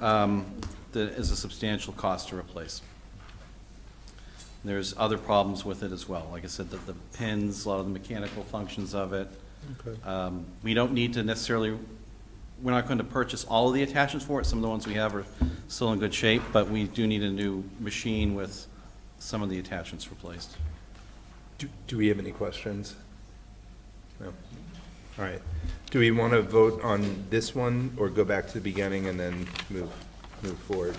um, that is a substantial cost to replace. There's other problems with it as well. Like I said, the, the pins, a lot of the mechanical functions of it. Okay. Um, We don't need to necessarily, we're not going to purchase all of the attachments for it. Some of the ones we have are still in good shape, but we do need a new machine with some of the attachments replaced. Do, do we have any questions? No. All right. Do we want to vote on this one or go back to the beginning and then move, move forward?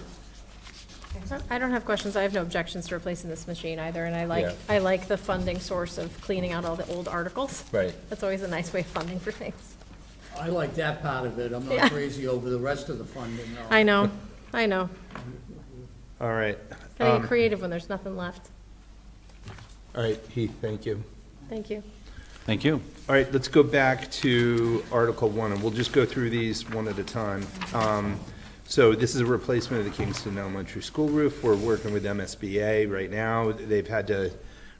I don't have questions. I have no objections to replacing this machine either, and I like, Yeah. I like the funding source of cleaning out all the old articles. Right. That's always a nice way of funding for things. I like that part of it. I'm Yeah. not crazy over the rest of the funding. though. I know, I know. All right. Gotta Um, get creative when there's nothing left. All right, Heath, thank you. Thank you. Thank you. All right, let's go back to Article One, and we'll just go through these one at a time. Um, So this is a replacement of the Kingston Elementary School roof. We're working with MSBA right now. They've had to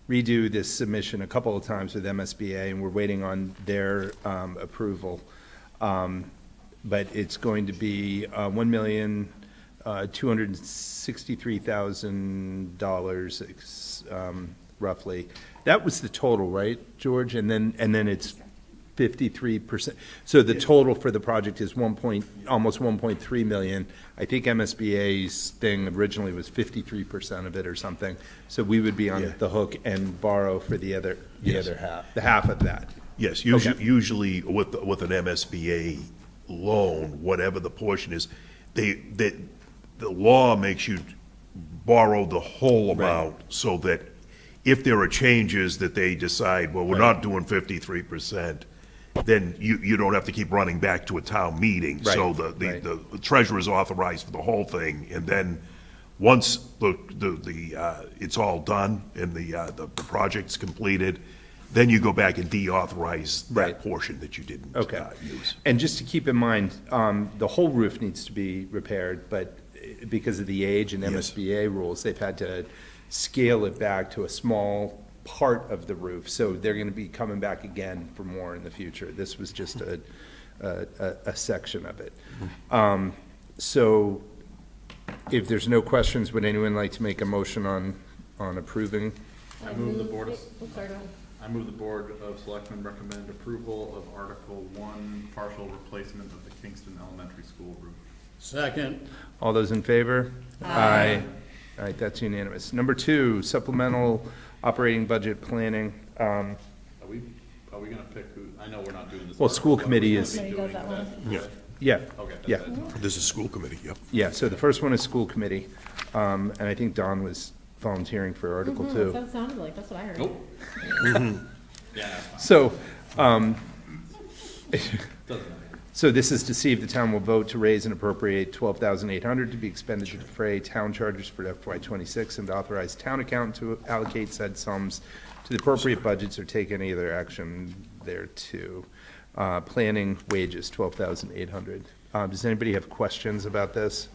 redo this submission a couple of times with MSBA, and we're waiting on their um, approval. Um, But it's going to be uh, one million, uh, two hundred and sixty-three thousand dollars, ex- um, roughly. That was the total, right, George? And then, and then it's fifty-three percent. So the total for the project is one point, almost one point three million. I think MSBA's thing originally was fifty-three percent of it or something. So we would be on Yeah. the hook and borrow for the other, the Yes. other half, the half of that. Yes, Okay. usually, usually with, with an MSBA loan, whatever the portion is, they, that, the law makes you borrow the whole amount so that if there are changes that they decide, well, we're not doing fifty-three percent, then you, you don't have to keep running back to a town meeting. So Right, the, the, right. the the treasurer is authorized for the whole thing, and then, once the, the, the, uh, it's all done and the, uh, the the project's completed, then you go back and deauthorize Right. that portion that you didn't Okay. uh, use. And just to keep in mind, um, the whole roof needs to be repaired, but eh, because of the age and Yes. MSBA rules, they've had to scale it back to a small part of the roof, so they're gonna be coming back again for more in the future. This was just a, a, a- a section of it. Um, so if there's no questions, would anyone like to make a motion on, on approving? I move the Board of, Oops, sorry, go ahead. I move the Board of Selectmen recommend approval of Article One, partial replacement of the Kingston Elementary School roof. Second, All those in favor? Aye. All right, that's unanimous. Number two, supplemental operating budget planning. Um, Are we, are we gonna pick who, I know we're not doing this. Well, school article, but we're committee gonna is- be Committee does doing that that. Yeah, Yeah, Okay, that's yeah, it. this is school committee, yep. yeah. So the first one is school committee, um, and I think Don was volunteering for Article Hmm, Two. That sounded like, that's what I heard. Nope. Yeah, that's fine. So, um, doesn't matter. so this is to see if the town will vote to raise and appropriate twelve thousand eight hundred to be expended to defray town charges for FY twenty-six and to authorize town accountant to allocate said sums to the appropriate budgets or take any other action thereto. Uh, planning wages, twelve thousand eight hundred. Uh, does anybody have questions about this?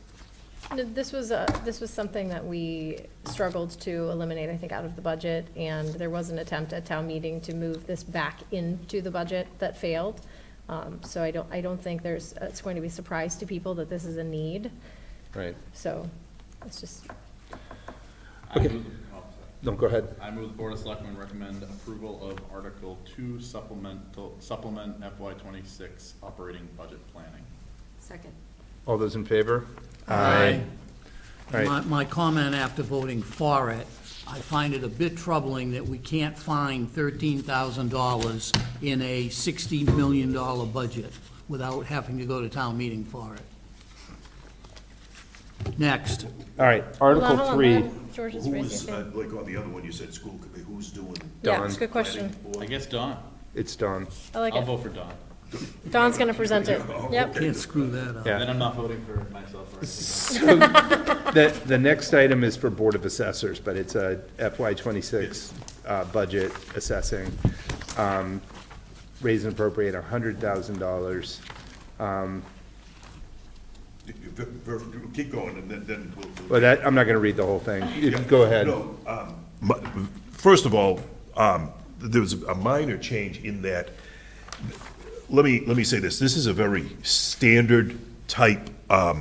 No, This was, uh, this was something that we struggled to eliminate, I think, out of the budget, and there was an attempt at town meeting to move this back into the budget that failed. Um, So I don't, I don't think there's, uh, it's going to be a surprise to people that this is a need, Right. so it's just, I move the- oh, sorry. No, go ahead. I move the Board of Selectmen recommend approval of Article Two supplemental, supplement FY twenty-six operating budget planning. Second. All those in favor? Aye. All right. my, my comment after voting for it, I find it a bit troubling that we can't find thirteen thousand dollars in a sixty million dollar budget without having to go to town meeting for it. Next, All right, Hold on, hold Article on, Three. hold on. George is Who was, raising. his uh, hand. like on the other one, you said school committee, who's doing? Yeah, Don. it's a good question. I guess Don, It's Don. I like I'll it. vote for Don, Don's gonna present it. Yep. can't screw that up. Yeah. then I'm not voting for myself or anything. The, the next item is for Board of Assessors, but it's a FY twenty-six, uh, budget assessing. Um, raise and appropriate hundred thousand dollars. Keep going, and then, then we'll. we'll- But that, I'm not gonna read the whole thing. You- Go ahead. No, um, my- First of all, um, there was a minor change in that, let me, let me say this, this is a very standard type um,